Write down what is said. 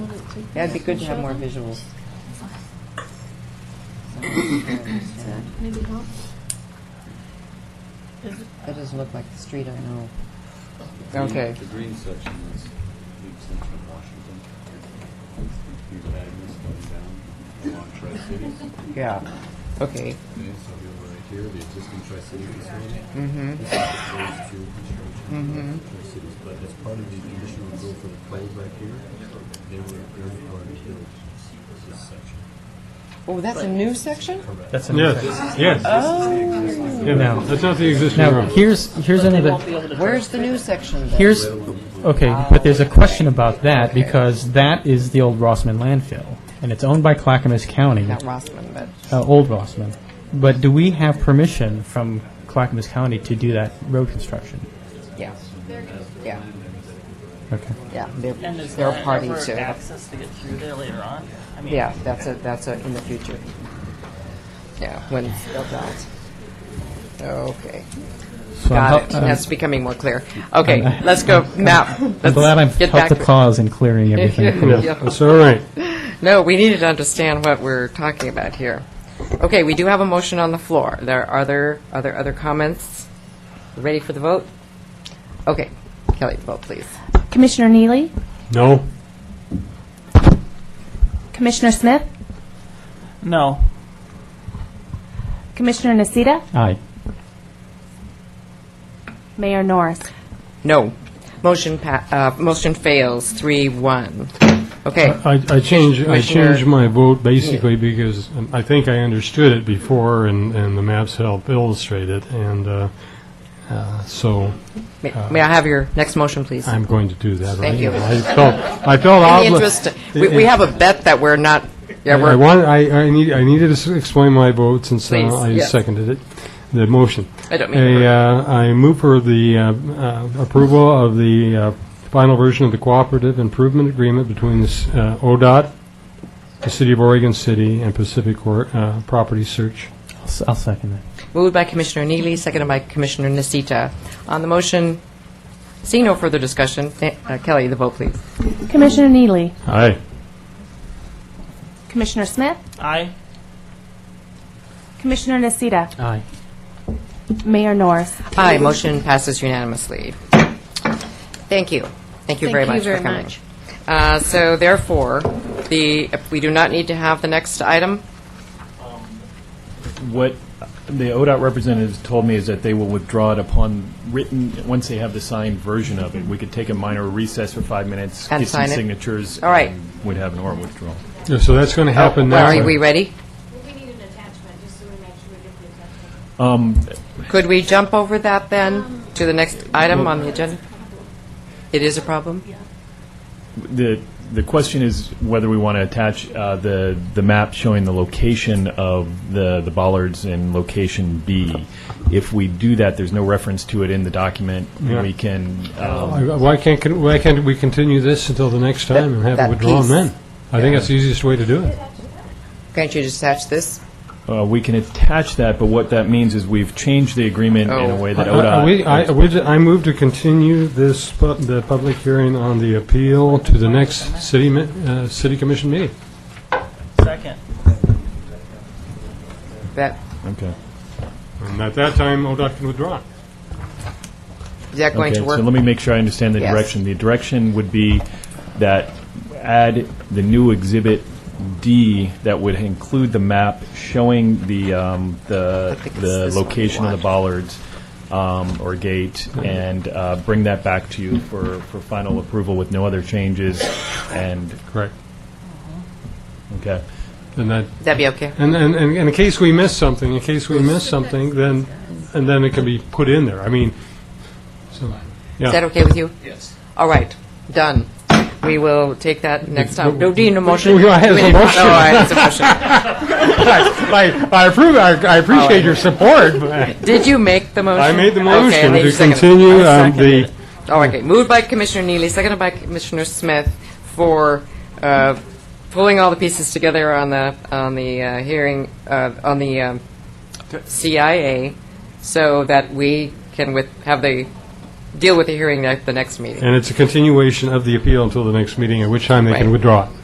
That'd be good to have more visuals. Maybe help. That doesn't look like the street I know. Okay. The green section is the extension of Washington. Here's Agnes going down along Tri-Cities. Yeah, okay. Okay, so we have right here, the existing Tri-City facility. Mm-hmm, This is proposed to construction Mhm. of Tri-Cities, but as part of the conditional rule for the play back here, they were very hard to build this section. oh, that's a new section? Correct. That's a new Yes, section. yes. Oh, Yeah, Now- That's not the existing Now, road. here's, here's another, where's the new section then? here's, okay, but there's a question about that, because that is the old Rossman landfill, and it's owned by Clackamas County, Not Rossman, but, uh, Old Rossman. But do we have permission from Clackamas County to do that road construction? yeah, yeah, Okay. yeah. They're, And is they're a there party ever to, access to get through there later on? I mean, yeah, that's a, that's a, in the future. Yeah, when it's built out. Okay, So I'm got it. hel- I'm- That's becoming more clear. Okay, let's go, map. I'm glad I've helped the cause in clearing everything. Yeah. up. Yeah. That's all right. No, we needed to understand what we're talking about here. Okay, we do have a motion on the floor. There are there other other comments. Ready for the vote? Okay, Kelly, vote please. Commissioner Neely, No. Commissioner Smith, No. Commissioner Nasita, Aye. Mayor Norris. No, motion pa- uh, motion fails three one. Okay, Uh, I, I changed, I Commissioner- changed my vote basically because um, I think I understood it before and, and the maps help illustrate it. And, uh, uh, so may, uh, may I have your next motion, please? I'm going to do that. Thank right you. now. I felt, I felt In obli- the interest, we, we have a bet that we're not. Yeah, I I we're. wanted, I, I need, I needed to s- explain my vote since uh, Please, I yes. seconded it, the motion. I don't mean. A, uh, I move for the uh, uh, approval of the uh, final version of the cooperative improvement agreement between the s- uh, ODOT, the City of Oregon City, and Pacific Cor- uh, Property Search. I'll s- I'll second that. Moved by Commissioner Neely, seconded by Commissioner Nasita. On the motion, seeing no further discussion, th- uh, Kelly, the vote, please. Commissioner Neely, Aye. Commissioner Smith, I. Commissioner Nasita, Aye. Mayor Norris. Aye, motion passes unanimously. Thank you. Thank you very much Thank you for very coming. much. Uh, So therefore, the, we do not need to have the next item? What the ODOT representatives told me is that they will withdraw it upon written, once they have the signed version of it. We could take a minor recess for five minutes, Mm-hmm. And get some sign it. signatures. All right. and We'd have an oral withdrawal. Yeah, So that's going to happen now. Are we ready? We need an attachment, just so we make sure we get the attachment. Um, Could we jump over that then to the next item on the agenda? It is a problem? The, the question is whether we want to attach uh, the, the map showing the location of the, the bollards in location B. If we do that, there's no reference to it in the document. Yeah. Oh, We can, um, Why why can't, con- why can't we continue this until the next time and have that it withdrawn piece. then? I think that's the easiest way to do it. Can't you just attach this? uh, we can attach that, but what that means is we've changed the agreement in Oh. a way that Uh, uh, ODOT. we- I we- I move to continue this, pu- the public hearing on the appeal to the next city, mi- uh, city commission meeting. Second. That, Okay. And at that time, ODOT can withdraw. it. is that going to Okay, So work? let me make sure I understand the Yes. direction. The direction would be that add the new exhibit D that would include the map showing the, um, the, I think it's the this one we location of the want. bollards um, or gate and uh, bring that back to you for, for final approval with no other changes and, Correct. okay. And that, That'd be okay? and, and, and in case we miss something, in case we miss something, then, and then it can be put in there. I mean, so, Is that yeah. okay with you? Yes. All right, done. We will take that next time. Do you need a motion? Well, I had a We- motion. Oh, I had a motion. I, I approve, I I appreciate your support, but Did you make the motion? I made the Oh, Okay, motion then you to second it. I continue um, seconded the, it. Oh, okay, moved by Commissioner Neely, seconded by Commissioner Smith for uh, pulling all the pieces together on the, on the uh, hearing, uh, on the um, CIA, so that we can with, have the, deal with the hearing at the next meeting. and it's a continuation of the appeal until the next meeting, at which time they Right. can withdraw it.